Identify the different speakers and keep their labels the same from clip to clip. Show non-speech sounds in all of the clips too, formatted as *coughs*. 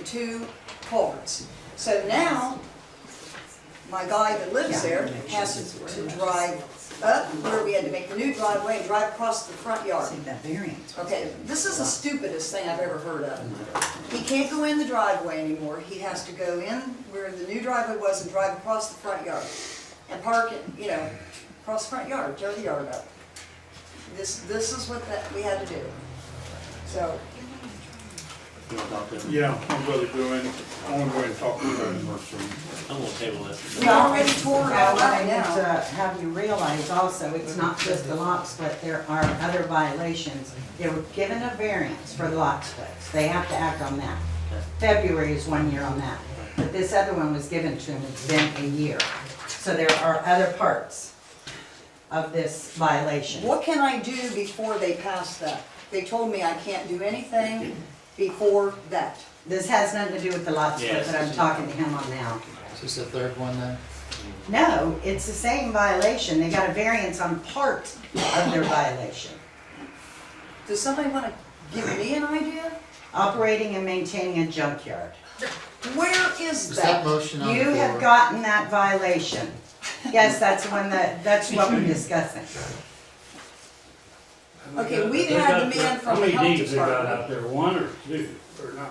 Speaker 1: two cords. So now, my guy that lives there has to- to drive up where we had to make the new driveway, and drive across the front yard.
Speaker 2: See, that variance. was
Speaker 1: Okay,
Speaker 2: given.
Speaker 1: this is the stupidest thing I've ever heard of. He can't go in the driveway anymore, he has to go in where the new driveway was and drive across the front yard. And park it, you know, across the front yard, tear the yard up. This, this is what that, we had to do. So,
Speaker 3: Yeah, I'm gonna go in, I wanna go in and talk to them.
Speaker 4: I'm gonna table this.
Speaker 1: we already tore it
Speaker 2: Now,
Speaker 1: out
Speaker 2: what I
Speaker 1: right
Speaker 2: need
Speaker 1: now.
Speaker 2: to have you realize also, it's not just the lot split, there are other violations. They were given a variance for lot splits, they have to act on that. February is one year on that, but this other one was given to them, it's been a year. So there are other parts of this violation.
Speaker 1: What can I do before they pass that? They told me I can't do anything before that.
Speaker 2: This has nothing to do with the lot split
Speaker 4: Yes.
Speaker 2: that I'm talking to him on now.
Speaker 5: Is this the third one then?
Speaker 2: No, it's the same violation, they got a variance on part of their violation.
Speaker 1: Does somebody wanna give me an idea?
Speaker 2: operating and maintaining a junkyard.
Speaker 1: Where is
Speaker 5: Is that
Speaker 1: that?
Speaker 5: motion on the floor?
Speaker 2: You have gotten that violation. Yes, that's one that, that's what we're discussing.
Speaker 1: Okay, we've had the man from the
Speaker 6: How many
Speaker 1: health
Speaker 6: deeds they got
Speaker 1: department.
Speaker 6: out there, one or two, or nine?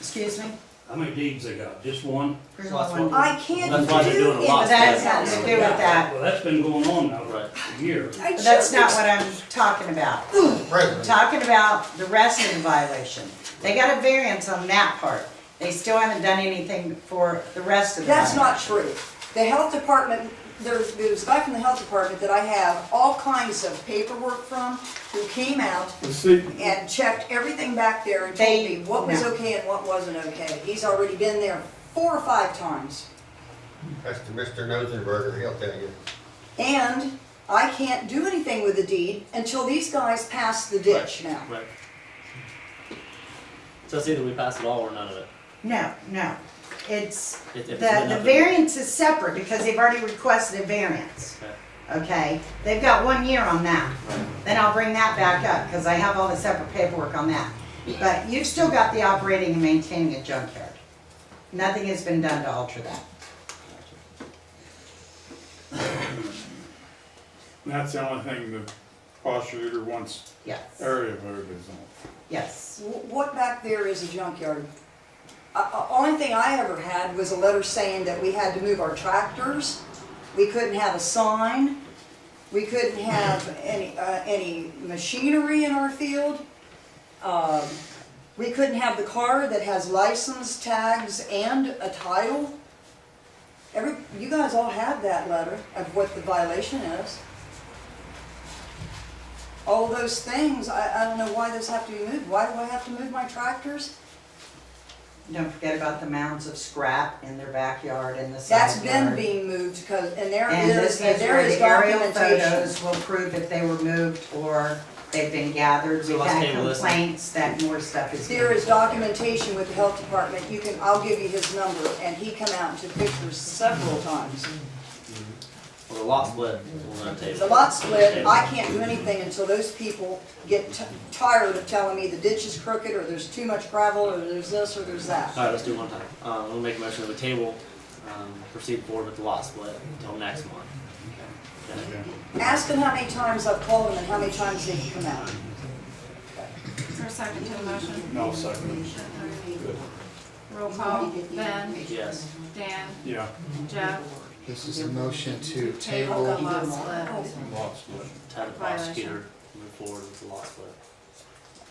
Speaker 2: Excuse me?
Speaker 6: How many deeds they got, just one?
Speaker 2: There's
Speaker 4: Last
Speaker 2: only one.
Speaker 1: I can't
Speaker 4: That's why they're
Speaker 1: do
Speaker 4: doing a lot.
Speaker 2: But
Speaker 1: anything.
Speaker 2: that has nothing to do with that.
Speaker 6: Well, that's been going on now,
Speaker 4: Right.
Speaker 6: right, a year.
Speaker 1: I
Speaker 2: But that's
Speaker 1: just-
Speaker 2: not what I'm talking about. I'm
Speaker 5: President,
Speaker 2: talking about the rest of the violation. They got a variance on that part. They still haven't done anything for the rest of the
Speaker 1: That's
Speaker 2: violation.
Speaker 1: not true. The health department, there's, there's a guy from the health department that I have all kinds of paperwork from who came out
Speaker 3: See,
Speaker 1: and checked everything back there and told
Speaker 2: They-
Speaker 1: me what was
Speaker 2: no.
Speaker 1: okay and what wasn't okay. He's already been there four or five times.
Speaker 7: That's to Mr. Nosenberger, he'll tell you.
Speaker 1: And I can't do anything with the deed until these guys pass the ditch now.
Speaker 4: Right. So it's either we pass it all or none of it.
Speaker 2: No, no. It's,
Speaker 4: If- if
Speaker 2: the,
Speaker 4: it's been
Speaker 2: the
Speaker 4: up to-
Speaker 2: variance is separate because they've already requested a variance. Okay? They've got one year on that. Then I'll bring that back up because I have all the separate paperwork on that. But you've still got the operating and maintaining a junkyard. Nothing has been done to alter that.
Speaker 3: that's the only thing the prosecutor wants
Speaker 2: Yes,
Speaker 4: Er.
Speaker 3: area voters on.
Speaker 2: yes.
Speaker 1: Wh- What back there is a junkyard? Uh, uh, Only thing I ever had was a letter saying that we had to move our tractors, we couldn't have a sign, we couldn't have any, uh, any machinery in our field. Um, We couldn't have the car that has license tags and a title. Every, you guys all have that letter of what the violation is. all those things, I, I don't know why those have to be moved, why do I have to move my tractors?
Speaker 2: Don't forget about the mounds of scrap in their backyard and the side
Speaker 1: That's been
Speaker 2: yard.
Speaker 1: being moved, because, and there
Speaker 2: And
Speaker 1: is,
Speaker 2: this is
Speaker 1: there
Speaker 2: where
Speaker 1: is
Speaker 2: the aerial
Speaker 1: documentation.
Speaker 2: photos will prove if they were moved or they've been gathered.
Speaker 4: So
Speaker 2: We've
Speaker 4: let's
Speaker 2: had
Speaker 4: table this.
Speaker 2: complaints that more stuff is.
Speaker 1: There
Speaker 2: being-
Speaker 1: is documentation with the health department, you can, I'll give you his number, and he come out and took pictures several times.
Speaker 4: Well, the lot split, we're gonna table.
Speaker 1: The
Speaker 4: it.
Speaker 1: lot split, I can't do anything until those people get t- tired of telling me the ditch is crooked, or there's too much gravel, or there's this, or there's that.
Speaker 4: All right, let's do it one time. Um, we'll make a motion of a table, um, proceed forward with the lot split until next month. Okay.
Speaker 1: Ask them how many times I've called them and how many times they've come out.
Speaker 8: Is there a second to the motion?
Speaker 3: No, second,
Speaker 8: Roll call, Ben,
Speaker 4: Yes.
Speaker 8: Dan,
Speaker 3: yeah,
Speaker 8: Jeff,
Speaker 5: this is a motion to
Speaker 8: table the
Speaker 5: table
Speaker 8: lot
Speaker 1: Oh,
Speaker 8: split.
Speaker 3: lots, but.
Speaker 4: To have the prosecutor move forward with the lot split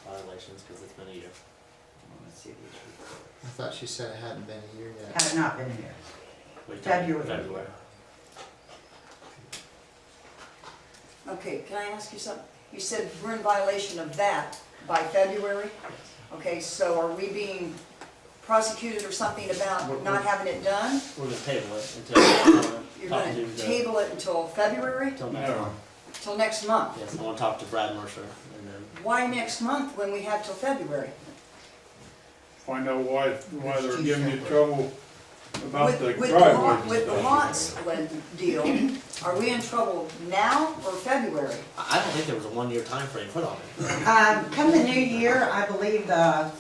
Speaker 4: violations, cause it's been a year.
Speaker 5: I thought she said it hadn't been a year yet.
Speaker 2: Have not been here.
Speaker 4: Wait,
Speaker 2: February.
Speaker 4: February.
Speaker 1: Okay, can I ask you something? You said we're in violation of that by February? Okay, so are we being prosecuted or something about not having it done?
Speaker 4: We're gonna table it
Speaker 2: *coughs*
Speaker 4: until,
Speaker 1: You're
Speaker 4: talk to
Speaker 1: gonna
Speaker 4: the,
Speaker 1: table it until February,
Speaker 4: until next
Speaker 3: No,
Speaker 4: month.
Speaker 1: till next month?
Speaker 4: Yes, I wanna talk to Brad Mercer and then
Speaker 1: Why next month when we have till February?
Speaker 3: find out why, why they're giving you trouble about
Speaker 1: With
Speaker 3: the
Speaker 1: with lot-
Speaker 3: driveway.
Speaker 1: With the lot split deal, are we in trouble now or February?
Speaker 4: I I don't think there was a one-year time frame put on it.
Speaker 2: Um, come the new year, I believe the,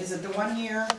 Speaker 2: is it the one year?